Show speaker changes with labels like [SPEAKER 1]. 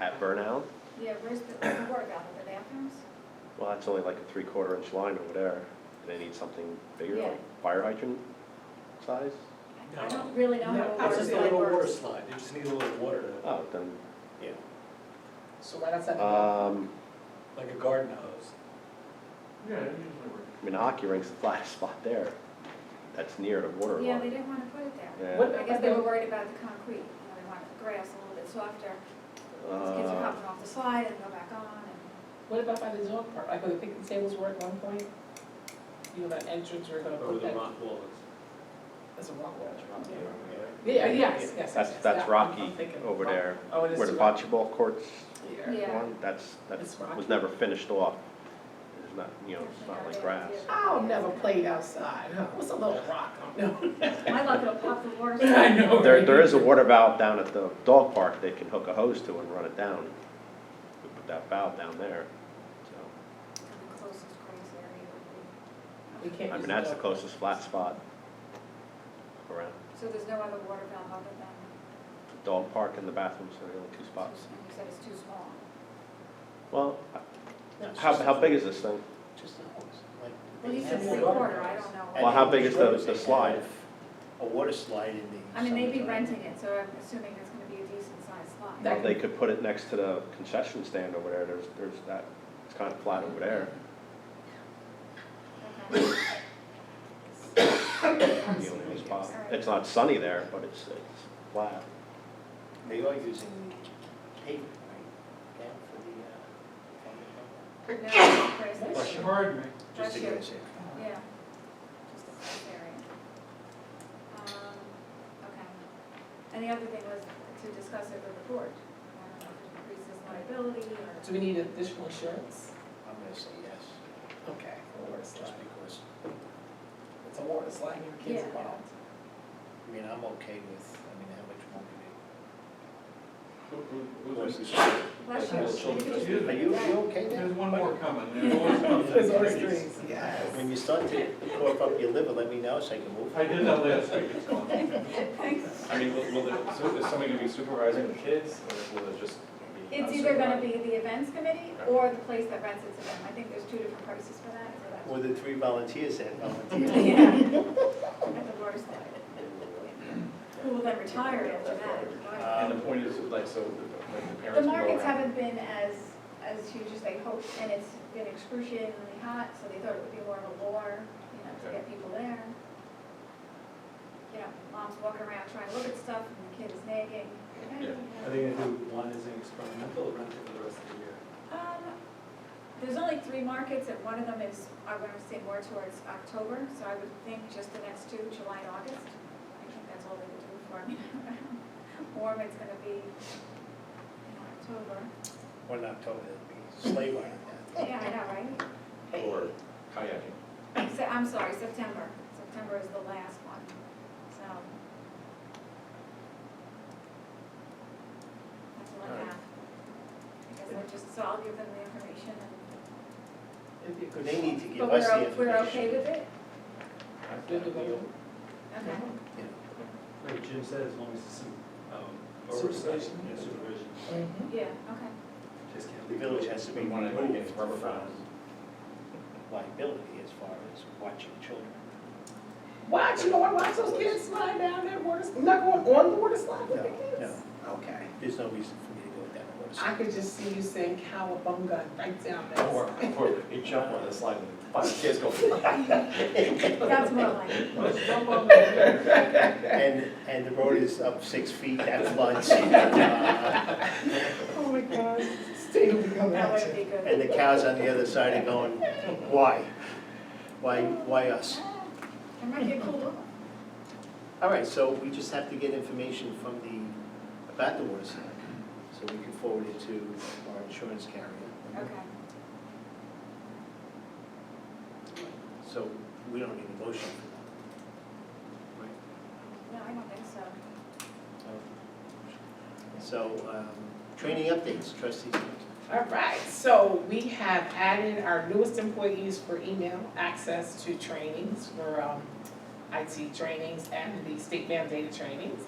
[SPEAKER 1] at Burnout.
[SPEAKER 2] Yeah, where's the, where's the water valve, the bathrooms?
[SPEAKER 1] Well, that's only like a three-quarter inch line over there. They need something bigger,
[SPEAKER 2] Yeah.
[SPEAKER 1] like fire hydrant size?
[SPEAKER 2] I
[SPEAKER 3] No.
[SPEAKER 2] don't really know how a
[SPEAKER 3] It's
[SPEAKER 2] water
[SPEAKER 3] just a little
[SPEAKER 2] slide
[SPEAKER 3] water
[SPEAKER 2] works.
[SPEAKER 3] slide, you just need a little water, to-
[SPEAKER 1] Oh, then,
[SPEAKER 3] yeah,
[SPEAKER 4] So why not send it out?
[SPEAKER 1] um,
[SPEAKER 3] like a garden hose.
[SPEAKER 5] Yeah, it usually works.
[SPEAKER 1] I mean, the hockey rink's the flattest spot there. That's near the water
[SPEAKER 2] Yeah, they
[SPEAKER 1] line.
[SPEAKER 2] didn't wanna put it there.
[SPEAKER 1] Yeah. uh,
[SPEAKER 4] What-
[SPEAKER 2] I guess they were worried about the concrete, you know, they wanted the grass a little bit softer. These kids are
[SPEAKER 1] Uh,
[SPEAKER 2] hopping off the slide and go back on and,
[SPEAKER 4] What about by the dog park, like where the picnic tables were at one point? You know, that entrance where they're gonna
[SPEAKER 3] Over
[SPEAKER 4] put
[SPEAKER 3] the
[SPEAKER 4] that,
[SPEAKER 3] mock walls.
[SPEAKER 4] that's a rock wall, Yeah, uh, yes, yes, yes.
[SPEAKER 1] That's,
[SPEAKER 4] yes, that
[SPEAKER 1] that's
[SPEAKER 4] one,
[SPEAKER 1] rocky
[SPEAKER 4] I'm thinking.
[SPEAKER 1] over there,
[SPEAKER 4] Oh, it is.
[SPEAKER 1] where the
[SPEAKER 4] rocky.
[SPEAKER 1] bocce ball courts
[SPEAKER 4] Yeah.
[SPEAKER 2] yeah.
[SPEAKER 1] one, that's, that's,
[SPEAKER 4] It's
[SPEAKER 1] was
[SPEAKER 4] rocky.
[SPEAKER 1] never finished off. It's not, you know, it's not like grass.
[SPEAKER 4] I'll never played outside, huh? What's a little rock? No.
[SPEAKER 2] My luck, it'll pop the water.
[SPEAKER 4] I know.
[SPEAKER 1] There, there is a water valve down at the dog park they can hook a hose to and run it down. We put that valve down there, so.
[SPEAKER 2] The closest grass area would
[SPEAKER 4] We can't
[SPEAKER 1] I mean,
[SPEAKER 4] use the
[SPEAKER 1] that's the
[SPEAKER 4] dog park.
[SPEAKER 1] closest flat spot around.
[SPEAKER 2] be, so there's no other water valve other than,
[SPEAKER 1] The Dog park and the bathrooms are the only two spots.
[SPEAKER 2] you said it's too small.
[SPEAKER 1] Well,
[SPEAKER 4] That's
[SPEAKER 1] how,
[SPEAKER 4] just a-
[SPEAKER 1] how big is this thing?
[SPEAKER 4] Just a hose, like.
[SPEAKER 2] Well,
[SPEAKER 4] they
[SPEAKER 2] he
[SPEAKER 4] have
[SPEAKER 2] said
[SPEAKER 4] one
[SPEAKER 2] three
[SPEAKER 4] garden
[SPEAKER 2] quarter, I
[SPEAKER 4] hose.
[SPEAKER 2] don't know.
[SPEAKER 1] Well, how big is the-
[SPEAKER 6] And
[SPEAKER 1] the slide?
[SPEAKER 6] if A water slide in the.
[SPEAKER 2] I mean, they'd be
[SPEAKER 6] summertime.
[SPEAKER 2] renting it, so I'm assuming it's gonna be a decent sized slide.
[SPEAKER 4] That
[SPEAKER 1] Well, They could put it next to the concession stand over there, there's, there's that, it's kind of flat over there.
[SPEAKER 2] Okay.
[SPEAKER 1] The only spot. It's not sunny there, but it's, it's flat.
[SPEAKER 6] They are using pavement, right, down for uh, the,
[SPEAKER 2] No, it's a grass area.
[SPEAKER 4] Bless you.
[SPEAKER 5] Pardon me.
[SPEAKER 6] uh, just to
[SPEAKER 2] Bless you.
[SPEAKER 6] get us in.
[SPEAKER 2] Yeah. Just the first area. Um, okay. And the other thing was to discuss it with the board. I don't know if it Increases liability or.
[SPEAKER 4] Do we need additional insurance?
[SPEAKER 6] I'm gonna say yes,
[SPEAKER 4] Okay, for a water slide.
[SPEAKER 6] just because,
[SPEAKER 4] It's a water slide, your
[SPEAKER 2] Yeah.
[SPEAKER 4] kids involved.
[SPEAKER 6] I mean, I'm okay with, I mean, how much more could
[SPEAKER 5] Who-
[SPEAKER 6] it?
[SPEAKER 5] who- who's-
[SPEAKER 2] Bless
[SPEAKER 5] Bless you.
[SPEAKER 2] you.
[SPEAKER 6] Are you, you okay
[SPEAKER 5] There's
[SPEAKER 6] then?
[SPEAKER 5] one more coming. There's always one.
[SPEAKER 4] There's always drinks, yes.
[SPEAKER 6] When you start to cough up your liver, let me know so I can move.
[SPEAKER 5] I did that last week, it's gone.
[SPEAKER 7] I mean, will, will there, so is somebody gonna be supervising the kids, or will it just be?
[SPEAKER 2] It's either gonna be the events committee or the place that rents it to them. I think there's two different prices for that, so that's.
[SPEAKER 6] Or the three volunteers that volunteer.
[SPEAKER 2] Yeah. At the water slide. Who will then retire after that? if you want.
[SPEAKER 7] And the point is, like, so, the- like, the
[SPEAKER 2] The
[SPEAKER 7] parents will go
[SPEAKER 2] markets
[SPEAKER 7] around.
[SPEAKER 2] haven't been as, as huge as they hoped, and it's been excruciatingly hot, so they thought it would be more of a war, you know, to
[SPEAKER 7] Okay.
[SPEAKER 2] get people there. You know, mom's walking around trying to look at stuff, and the kid is nagging. "Hey,
[SPEAKER 7] Yeah.
[SPEAKER 2] you know."
[SPEAKER 3] Are they gonna do one as an experimental, rent it for the rest of the year?
[SPEAKER 2] Um, There's only three markets, and one of them is, I want to say more towards October, so I would think just the next two, July and August. I think that's all they would do for me. Warm, it's gonna be in October.
[SPEAKER 6] One October, it'll be sleigh ride.
[SPEAKER 2] Yeah, I know, right?
[SPEAKER 7] Or kayaking.
[SPEAKER 2] Se- I'm sorry, September. September is the last one, so. That's all I have. I guess I just, so I'll give them the information and.
[SPEAKER 4] It'd be a good.
[SPEAKER 6] They need to give
[SPEAKER 2] But we're,
[SPEAKER 6] us the
[SPEAKER 2] o-
[SPEAKER 6] information.
[SPEAKER 2] we're okay with it?
[SPEAKER 4] Good to go.
[SPEAKER 2] Okay.
[SPEAKER 4] Mm-hmm.
[SPEAKER 3] Like Jim said, as long as it's some, um, oversight,
[SPEAKER 4] Supervision.
[SPEAKER 3] yeah, supervision.
[SPEAKER 4] Mhm.
[SPEAKER 2] Yeah, okay.
[SPEAKER 3] Just can't
[SPEAKER 6] The
[SPEAKER 3] leave it.
[SPEAKER 6] village has to be
[SPEAKER 7] We
[SPEAKER 6] one
[SPEAKER 7] wanna
[SPEAKER 6] of
[SPEAKER 7] go against rubber bounds.
[SPEAKER 6] liability as far as watching children.
[SPEAKER 4] Watch, you don't wanna watch those kids slide down that water, s- not going on the water slide with the
[SPEAKER 6] No,
[SPEAKER 4] kids? Okay.
[SPEAKER 6] There's no reason for me to go down the water
[SPEAKER 4] I
[SPEAKER 6] slide.
[SPEAKER 4] could just see you saying cowabunga right down that
[SPEAKER 7] Or,
[SPEAKER 4] slide.
[SPEAKER 7] or you jump on the slide and five kids go. Well,
[SPEAKER 2] That's more like it.
[SPEAKER 3] Let's jump on there.
[SPEAKER 6] And, and the road is up six feet, Uh, that's lunch. And
[SPEAKER 4] Oh my gosh, Steve will be coming
[SPEAKER 2] That
[SPEAKER 4] at
[SPEAKER 2] would
[SPEAKER 4] you.
[SPEAKER 2] be good.
[SPEAKER 6] the cows on the other side are going, why? Why, why us?
[SPEAKER 2] Ah, It might get cool.
[SPEAKER 6] All right, so we just have to get information from the, about the water slide. So we can forward it to our insurance carrier.
[SPEAKER 2] Okay.
[SPEAKER 6] So we don't need a motion. Right.
[SPEAKER 2] No, I don't think so.
[SPEAKER 6] So, um, training updates, trustees.
[SPEAKER 4] All right, so we have added our newest employees for email access to trainings for um, IT trainings and the state mandated trainings.